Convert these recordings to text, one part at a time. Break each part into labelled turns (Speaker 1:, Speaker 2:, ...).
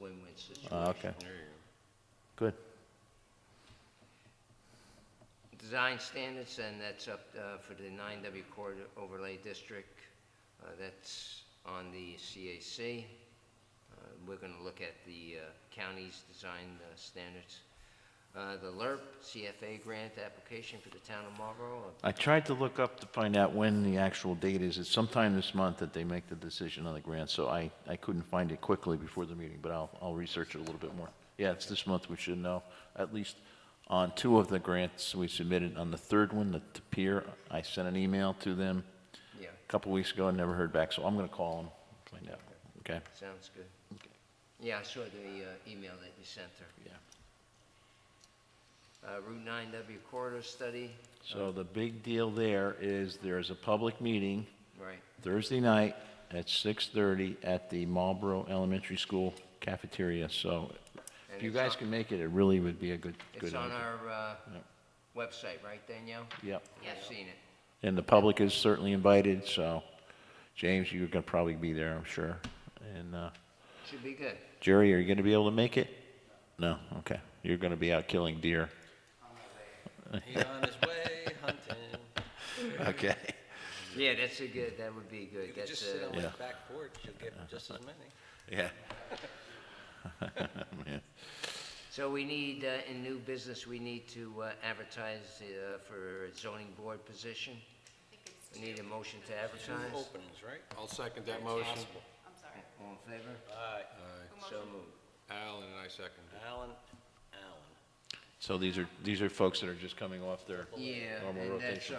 Speaker 1: win-win situation.
Speaker 2: Ah, okay.
Speaker 1: There you
Speaker 2: Good.
Speaker 1: go. Design standards, and that's up uh, for the 9W corridor overlay district. Uh, That's on the CAC. Uh, We're going to look at the uh, county's design uh, standards. Uh, The LERP CFA grant application for the town of uh, Marlborough.
Speaker 2: I tried to look up to find out when the actual date is. It's sometime this month that they make the decision on the grant, so I, I couldn't find it quickly before the meeting, but I'll, I'll research it a little bit more. Yeah, it's this month, we should know, at least on two of the grants we submitted. On the third one, the the peer, I sent an email to them
Speaker 1: Yeah,
Speaker 2: a couple weeks ago and never heard back, so I'm going to call them, find out, okay?
Speaker 1: sounds good. Yeah, I saw the uh, email that you sent her.
Speaker 2: Yeah.
Speaker 1: Uh, Route 9W corridor study,
Speaker 2: So the big deal there is there's a public meeting
Speaker 1: right,
Speaker 2: Thursday night at 6:30 at the Marlboro Elementary School cafeteria, so if
Speaker 1: And
Speaker 2: you
Speaker 1: it's
Speaker 2: guys
Speaker 1: on-
Speaker 2: can make it, it really would be a good, good
Speaker 1: It's on
Speaker 2: idea.
Speaker 1: our uh,
Speaker 2: Yep.
Speaker 1: website, right, Danielle?
Speaker 2: Yep,
Speaker 1: I've seen it.
Speaker 2: and the public is certainly invited, so James, you're gonna probably be there, I'm sure. And uh,
Speaker 1: Should be good.
Speaker 2: Jerry, are you gonna be able to make it? No, okay, you're gonna be out killing deer.
Speaker 3: He's on his way hunting.
Speaker 2: Okay.
Speaker 1: Yeah, that's a good, that would be
Speaker 3: You
Speaker 1: good.
Speaker 3: could
Speaker 1: That's uh,
Speaker 3: just sit on
Speaker 1: a,
Speaker 3: his
Speaker 2: Yeah.
Speaker 3: back porch, you'll get just as many.
Speaker 2: Yeah.
Speaker 1: so we need, uh, in new business, we need to uh, advertise uh, for a zoning board position. We need a motion to
Speaker 3: Two
Speaker 1: advertise.
Speaker 3: openings, right?
Speaker 4: I'll second that motion.
Speaker 5: I'm sorry.
Speaker 1: All in favor?
Speaker 3: Aye.
Speaker 1: So moved.
Speaker 4: Alan and I second.
Speaker 3: Alan, Alan.
Speaker 2: So these are, these are folks that are just coming off their,
Speaker 1: Yeah,
Speaker 2: Normal
Speaker 1: and that's
Speaker 2: rotation.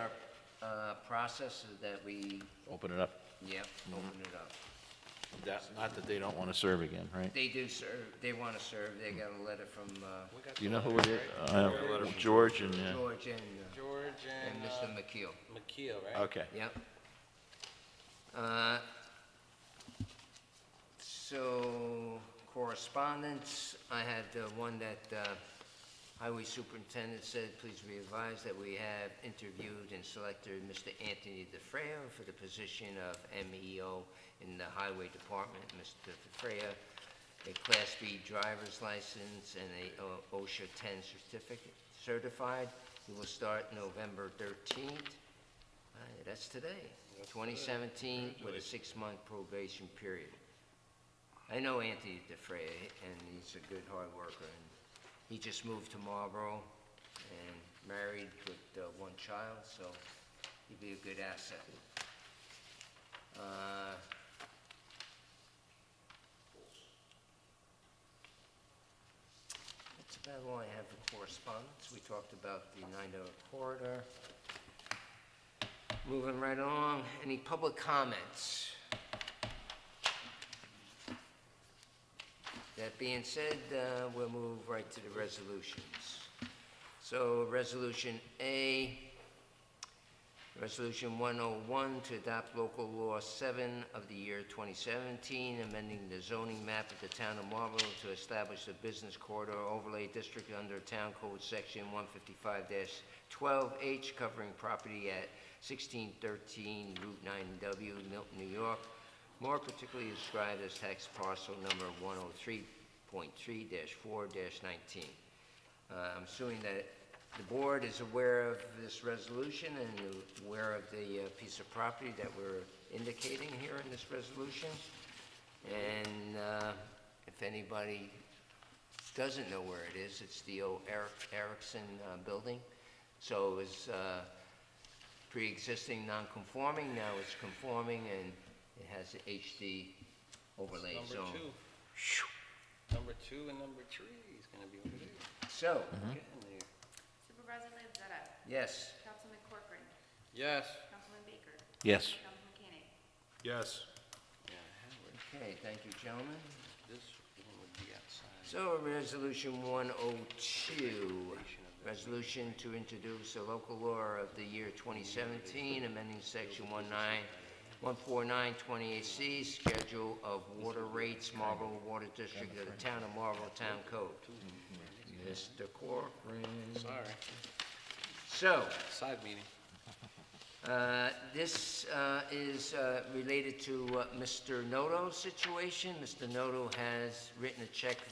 Speaker 1: our uh, process is that we,
Speaker 2: open it up.
Speaker 1: yep,
Speaker 2: Mm-hmm.
Speaker 1: open it up.
Speaker 2: That- Not that they don't wanna serve again, right?
Speaker 1: They do serve, they want to serve, they got a letter from uh,
Speaker 3: We got
Speaker 2: You
Speaker 3: the
Speaker 2: know who it
Speaker 3: letters,
Speaker 2: is?
Speaker 3: right?
Speaker 2: Uh, George and, uh,
Speaker 1: George and, uh,
Speaker 3: George
Speaker 1: and
Speaker 3: and
Speaker 1: Mr.
Speaker 3: uh,
Speaker 1: McKeel.
Speaker 3: McKeel, right?
Speaker 2: okay.
Speaker 1: Yep. Uh, So correspondence, I had uh, one that uh, Highway Superintendent said, please be advised that we have interviewed and selected Mr. Anthony DeFreya for the position of MEO in the Highway Department. Mr. DeFreya, a Class B driver's license and a uh, OSHA 10 certificate, certified. He will start November 13th. Uh, That's today, 2017, with a six-month probation period. I know Anthony DeFrey, and he's a good hard worker, and he just moved to Marlboro and married with uh, one child, so he'd be a good asset. Uh, That's about all I have for correspondence. We talked about the 90 corridor. Moving right along, any public comments? That being said, uh, we'll move right to the resolutions. So, Resolution A, Resolution 101 to adopt local law 7 of the year 2017, amending the zoning map of the town of Marlborough to establish the business corridor overlay district under Town Code Section 155-12H, covering property at 1613 Route 9W, Milton, New York, more particularly described as tax parcel number 103.3-4-19. Uh, I'm assuming that the board is aware of this resolution and aware of the uh, piece of property that we're indicating here in this resolution. And uh, if anybody doesn't know where it is, it's the old Eric Erickson uh, building. So it was uh, pre-existing non-conforming, now it's conforming, and it has a HD overlay
Speaker 3: Number
Speaker 1: zone.
Speaker 3: two. Number two and number three is gonna be over there.
Speaker 1: So,
Speaker 2: Hmm?
Speaker 3: Getting there.
Speaker 5: Supervisor Lanzetta,
Speaker 1: yes,
Speaker 5: Councilman Corcoran,
Speaker 3: Yes.
Speaker 5: Councilman Baker,
Speaker 2: Yes.
Speaker 5: Councilman Koenig.
Speaker 4: Yes.
Speaker 3: Yeah, Howard,
Speaker 1: okay, thank you, gentlemen.
Speaker 3: this one would be outside.
Speaker 1: So, Resolution 102, resolution to introduce a local law of the year 2017, amending Section 14928C, Schedule of Water Rates, Marlboro Water District of the Town of Marlboro Town Code. Mr. Corcoran.
Speaker 3: Sorry,
Speaker 1: So,
Speaker 3: side meeting.
Speaker 1: uh, Uh, This uh, is uh, related to uh, Mr. Noto's situation. Mr. Noto has written a check